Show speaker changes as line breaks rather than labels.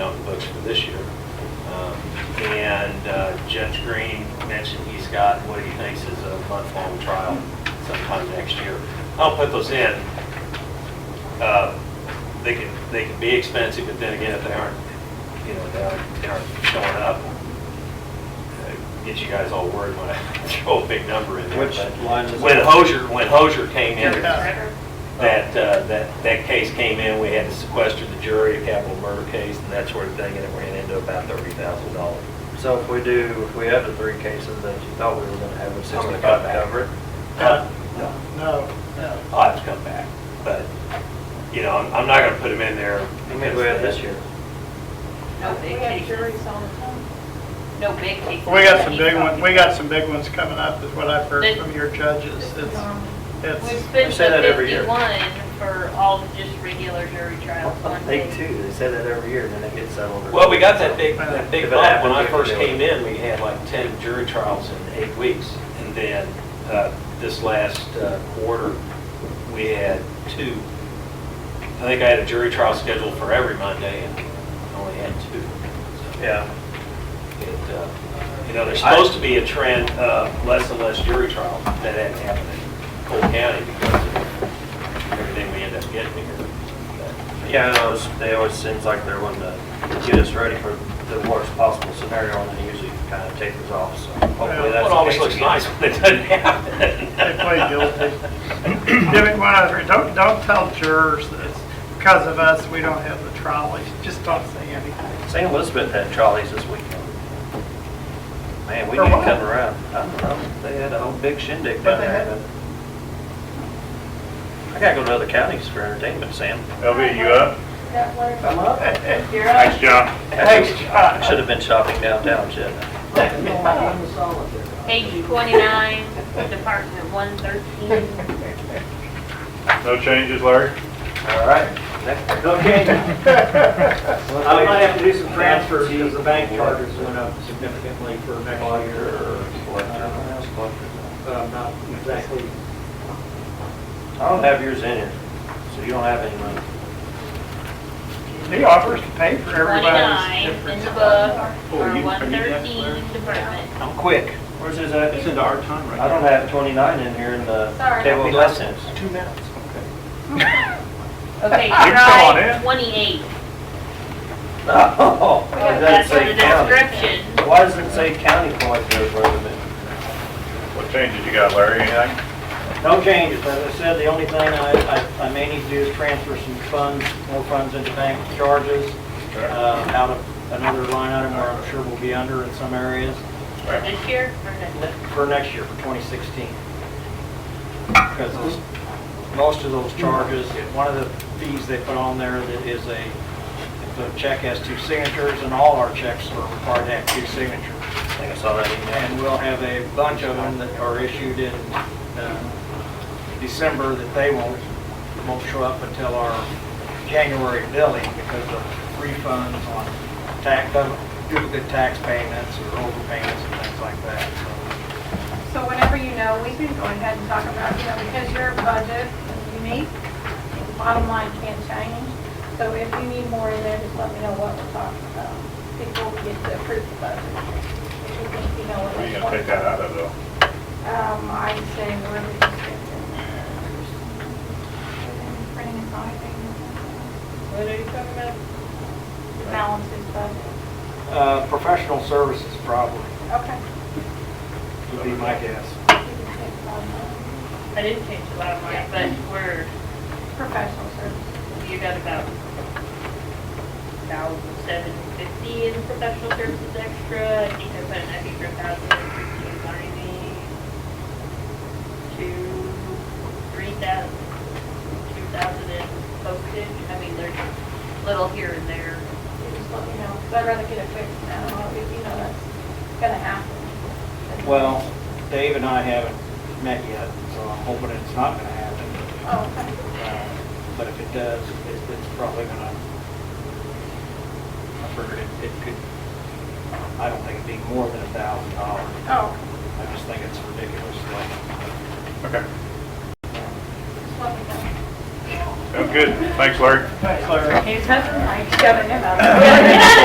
budget for this year. Um, And uh, Judge Green mentioned he's got what he thinks is a month-long trial sometime next year. I'll put those in. Uh, They can, they can be expensive, but then again, if they aren't, you know, they aren't, they aren't showing up, uh, get you guys all worried when I throw a big number in there.
Which
but-
line is
When
that?
Hosier, when Hosier came in, that,
Yeah.
uh, that, that case came in, we had to sequester the jury, a capital murder case and that sort of thing, and it ran into about thirty thousand dollars.
So if we do, if we have the three cases that you thought we were gonna have, it's just
How
gonna
many
come
got back? Huh?
back.
No, no.
I'll have to come back, but, you know, I'm, I'm not gonna put them in there.
How many we had this year?
No big cases,
all the time.
no big cases.
We got some big ones, we got some big ones coming up, is what I've heard from your judges. It's,
We
it's,
Um, spent
say that
the
every year.
fifty-one for all just regular jury trials one
They
day.
too, they say that every year, and then it gets settled. or-
Well, we got that big, that big
If it
bump. When
happened,
I
we
first
could do it.
came in, we had like 10 jury trials in eight weeks. And then uh, this last uh, quarter, we had two. I think I had a jury trial scheduled for every Monday and I only had two. So
Yeah,
it, uh, You know, there's supposed to be a trend of less and less jury trials. That hasn't happened in Cole County because of everything we end up getting here. But,
yeah, and it always- they always seems like they're wanting to get us ready for the worst possible scenario, and then usually kind of take us off, so hopefully
Well,
that's.
it
the
always
case
looks
again.
nice when it doesn't happen.
they play guilty. Give me one other- Don't, don't tell jurors that it's because of us, we don't have the trolleys. Just don't say anything.
St. Elizabeth had trolleys this weekend. Man, we
For
need to
what?
come around. I don't know, they had a whole big shindig
But
down
they
there.
had-
but- I gotta go to other counties for entertainment, Sam.
LB, you up?
That one.
I'm up.
You're
Nice job.
Thanks, Josh.
Should've been shopping downtown, shouldn't I?
Page twenty-nine, Department one thirteen.
No changes, Larry?
All right. Next.
Okay. I might have to do some transfers because the bank charges went up significantly for next year.
I
But I'm not exactly,
don't have yours in here, so you don't have any money.
He offers to pay for everybody's
Twenty-nine in
difference.
the book,
Oh,
or
you-
one
are you that
thirteen Department.
I'm quick. Where's his at?
it's into our time right now.
I don't have twenty-nine in here in the
Sorry.
table of lessons.
Two minutes, okay.
Okay,
can come on in.
try twenty-eight.
Oh, it doesn't
That's for
say
the
county.
description.
Why does it say county point there for a minute?
What changes you got, Larry? Anything?
No changes, as I said, the only thing I, I- I may need to do is transfer some funds, more funds into bank charges,
Sure.
uh, out of another line item where I'm sure we'll be under in some areas,
This year, or next?
for next year, for 2016. Because those- most of those charges, one of the fees they put on there that is a, if a check has two signatures, and all our checks are required to have two signatures.
I think I saw that email.
And we'll have a bunch of them that are issued in uh, December that they won't, won't show up until our January billing because of refunds on tax, duplicate tax payments or overpayments and things like that, so.
So whenever you know, we can go ahead and talk about, you know, because your budget is unique, the bottom line can't change. So if you need more in there, just let me know what we're talking about before we get to approve the budget. If you think you know what
Where are you
it's
gonna take
for.
that out of, though?
Um, I'd say where we just get it. Printing and copying.
What are you talking about?
Balances budget.
Uh, Professional services probably
Okay.
would be my guess.
You can take the bottom line.
I didn't change the bottom line, but we're,
Professional services.
you got about thousand seven fifty in professional services extra. I think I put an extra thousand fifteen ninety to three thousand, two thousand in postage. I mean, there's little here and there.
You just let me know, 'cause I'd rather get it fixed now, if you know that's gonna happen.
Well, Dave and I haven't met yet, so I'm hoping it's not going to happen.
Oh, okay.
Uh, But if it does, it's it's probably going to, I figured it it could, I don't think it'd be more than a thousand dollars.
Oh,
I just think it's ridiculous.
just
Okay.
let me know.
Sounds good. Thanks, Larry.
Thanks, Larry.
He's having, like, seven of them.